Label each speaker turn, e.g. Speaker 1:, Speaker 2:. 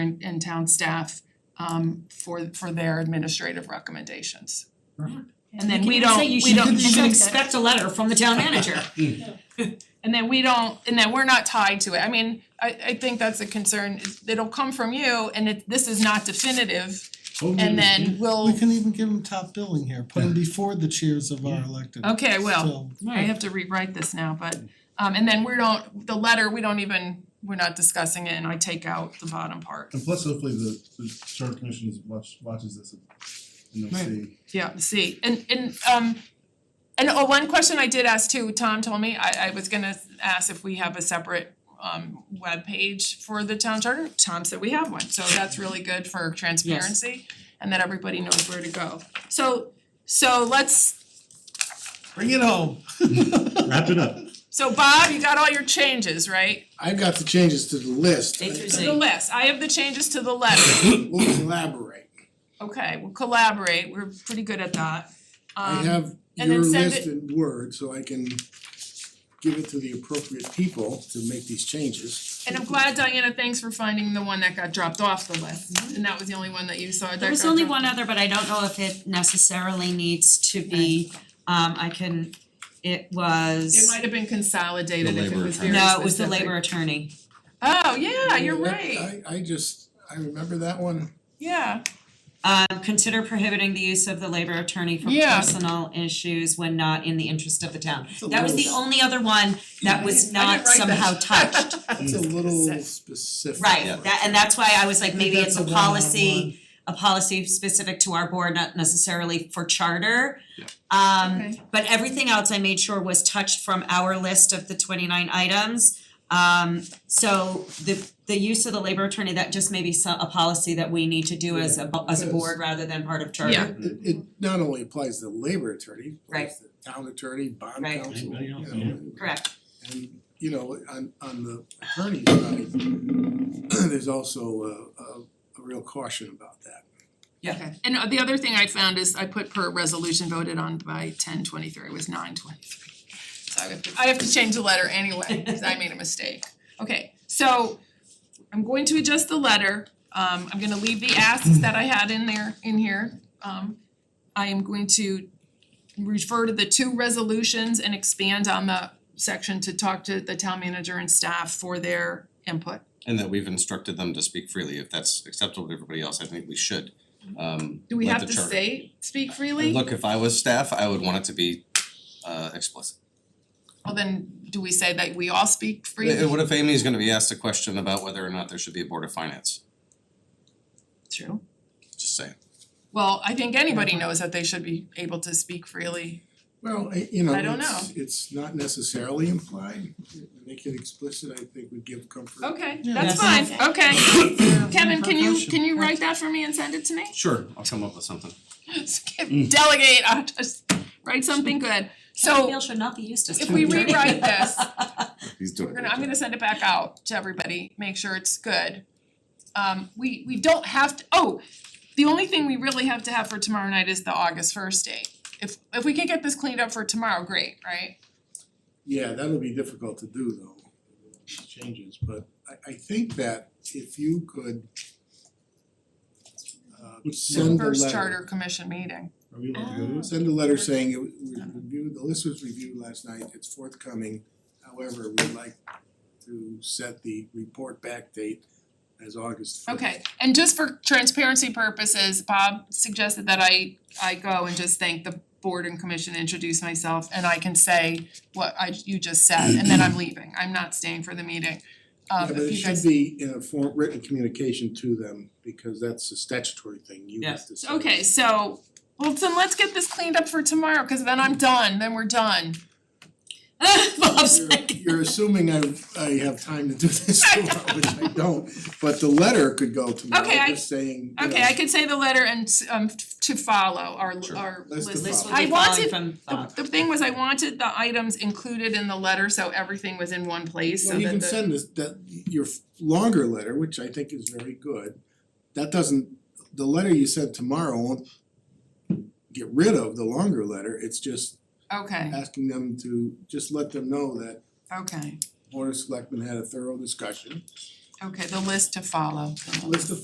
Speaker 1: and and town staff um for for their administrative recommendations. And then we don't, we don't,
Speaker 2: You should expect a letter from the town manager.
Speaker 1: and then we don't, and then we're not tied to it. I mean, I I think that's a concern. It's- It'll come from you and it this is not definitive
Speaker 3: Oh,
Speaker 1: and then
Speaker 4: We
Speaker 2: Oh.
Speaker 1: we'll,
Speaker 4: can even give them top billing here, put them before the cheers of our elected.
Speaker 1: okay, well,
Speaker 4: So,
Speaker 1: I have to rewrite this now, but um and then we don't, the letter, we don't even, we're not discussing it and I take out the bottom part.
Speaker 3: And plus hopefully the the charter commission is watch watches this and they'll see.
Speaker 1: Yeah, see, and and um and oh, one question I did ask too, Tom told me, I I was gonna ask if we have a separate um webpage for the town charter, Tom said we have one, so that's really good for transparency and that everybody knows where to go. So so let's,
Speaker 4: bring it home.
Speaker 3: Wrap it up.
Speaker 1: so Bob, you got all your changes, right?
Speaker 5: I've got the changes to the list.
Speaker 2: A through
Speaker 1: To the
Speaker 2: Z.
Speaker 1: list, I have the changes to the letter,
Speaker 5: We'll elaborate.
Speaker 1: okay, we'll collaborate, we're pretty good at that.
Speaker 5: I
Speaker 1: Um,
Speaker 5: have
Speaker 1: and then
Speaker 5: your
Speaker 1: send it-
Speaker 5: list in Word, so I can give it to the appropriate people to make these changes.
Speaker 1: And I'm glad Diana, thanks for finding the one that got dropped off the list, and that was the only one that you saw that got
Speaker 2: Mm-hmm. There was only
Speaker 1: dropped
Speaker 2: one other, but I don't know if it necessarily needs to be, um I can, it
Speaker 1: It
Speaker 2: was,
Speaker 1: might have been consolidated
Speaker 6: The
Speaker 1: if it
Speaker 6: labor
Speaker 1: was very
Speaker 2: no, it was the
Speaker 1: specific.
Speaker 2: labor attorney.
Speaker 1: Oh, yeah, you're
Speaker 5: That-
Speaker 1: right,
Speaker 5: I I just, I remember that one.
Speaker 1: yeah,
Speaker 2: Um consider prohibiting the use of the labor attorney for
Speaker 1: Yeah.
Speaker 2: personal issues when not in the interest of the town.
Speaker 5: It's a
Speaker 2: That was the
Speaker 5: little-
Speaker 2: only other one that was
Speaker 1: I didn't
Speaker 2: not
Speaker 1: write that.
Speaker 2: somehow touched.
Speaker 5: It's a
Speaker 1: Sick.
Speaker 5: little specific.
Speaker 2: Right,
Speaker 6: Yeah.
Speaker 2: that and that's why I was like,
Speaker 4: I think
Speaker 2: maybe it's
Speaker 4: that's
Speaker 2: a
Speaker 4: one-on-one.
Speaker 2: policy, a policy specific to our board, not necessarily for charter.
Speaker 6: Yeah.
Speaker 2: Um
Speaker 1: Okay.
Speaker 2: but everything else I made sure was touched from our list of the twenty nine items. Um so the the use of the labor attorney, that just may be so- a policy that we need to do as a bo- as a
Speaker 5: Yeah,
Speaker 2: board rather than part of charter.
Speaker 1: Yeah.
Speaker 5: It it not only applies to the labor attorney, it applies to the town attorney, bond
Speaker 2: Right.
Speaker 5: counsel,
Speaker 3: Anybody
Speaker 5: you
Speaker 3: else,
Speaker 5: know,
Speaker 3: yeah.
Speaker 5: and-
Speaker 2: Correct,
Speaker 5: And you know, on on the attorney side, there's also a a a real caution about that.
Speaker 2: Yeah.
Speaker 1: okay. And uh, the other thing I found is I put per resolution voted on by ten twenty-three, it was nine twenty-three. So I have to, I have to change the letter anyway, cause I made a mistake. Okay, so I'm going to adjust the letter, um I'm gonna leave the asks that I had in there, in here. Um I am going to refer to the two resolutions and expand on the section to talk to the town manager and staff for their input.
Speaker 6: And that we've instructed them to speak freely, if that's acceptable to everybody else, I think we should, um,
Speaker 1: Do we
Speaker 6: let
Speaker 1: have
Speaker 6: the
Speaker 1: to
Speaker 6: charter-
Speaker 1: say, speak freely?
Speaker 6: And look, if I was staff, I would want it to be uh explicit.
Speaker 1: Well, then, do we say that we all speak freely?
Speaker 6: Uh, What if Amy's gonna be asked a question about whether or not there should be a board of finance,
Speaker 1: True.
Speaker 6: just saying.
Speaker 1: Well, I think anybody knows that they should be able to speak freely.
Speaker 5: Well, I you know,
Speaker 1: I don't
Speaker 5: it's it's not necessarily implied, make it explicit, I think would give comfort.
Speaker 1: Okay,
Speaker 4: Yeah.
Speaker 1: that's fine,
Speaker 2: Yes.
Speaker 1: okay. Kevin, can you,
Speaker 4: Percussion.
Speaker 1: can you write that for me and send it to me?
Speaker 6: Sure, I'll come up with something.
Speaker 1: Delegate, I'll just write something good.
Speaker 2: Bill
Speaker 1: So
Speaker 2: should not be used as
Speaker 1: if we
Speaker 2: town attorney.
Speaker 1: rewrite this,
Speaker 6: He's doing
Speaker 1: we're gonna, I'm gonna send it back out to everybody, make sure it's good. Um, we, we don't have to, oh, the only thing we really have to have for tomorrow night is the August first date. If, if we could get this cleaned up for tomorrow, great, right?
Speaker 5: Yeah, that'll be difficult to do though, changes, but I I think that if you could uh send the
Speaker 1: First
Speaker 5: letter-
Speaker 1: charter commission meeting.
Speaker 3: Are we allowed to go to this?
Speaker 5: Send a letter saying it was we reviewed, the list was reviewed last night, it's forthcoming. However, we'd like to set the report back date as August first.
Speaker 1: Okay, and just for transparency purposes, Bob suggested that I I go and just thank the board and commission, introduce myself, and I can say what I you just said, and then I'm leaving, I'm not staying for the meeting.
Speaker 5: Yeah,
Speaker 1: Um
Speaker 5: but
Speaker 1: if
Speaker 5: it
Speaker 1: you
Speaker 5: should
Speaker 1: guys,
Speaker 5: be in a form, written communication to them, because that's a statutory thing, you have to send.
Speaker 1: okay, so, well, then let's get this cleaned up for tomorrow, cause then I'm done, then we're done.
Speaker 2: Bob's
Speaker 5: You're-
Speaker 2: like,
Speaker 5: You're assuming I I have time to do this tomorrow, which I don't, but the letter could go tomorrow,
Speaker 1: Okay, I-
Speaker 5: just saying, you
Speaker 1: Okay,
Speaker 5: know,
Speaker 1: I could say the letter and s- um to follow our
Speaker 6: Sure.
Speaker 1: our
Speaker 5: List to
Speaker 1: list.
Speaker 2: this will
Speaker 1: I
Speaker 2: be falling
Speaker 1: wanted-
Speaker 2: from Bob.
Speaker 1: The the thing was, I wanted the items included in the letter, so everything was in one place, so
Speaker 5: Well, you
Speaker 1: that
Speaker 5: can
Speaker 1: the
Speaker 5: send this, that, your f- longer letter, which I think is very good, that doesn't, the letter you sent tomorrow won't get rid of the longer letter, it's just
Speaker 1: Okay,
Speaker 5: asking them to, just let them know that
Speaker 1: okay.
Speaker 5: Board of Selectmen had a thorough discussion,
Speaker 1: Okay, the list to follow. the
Speaker 5: list of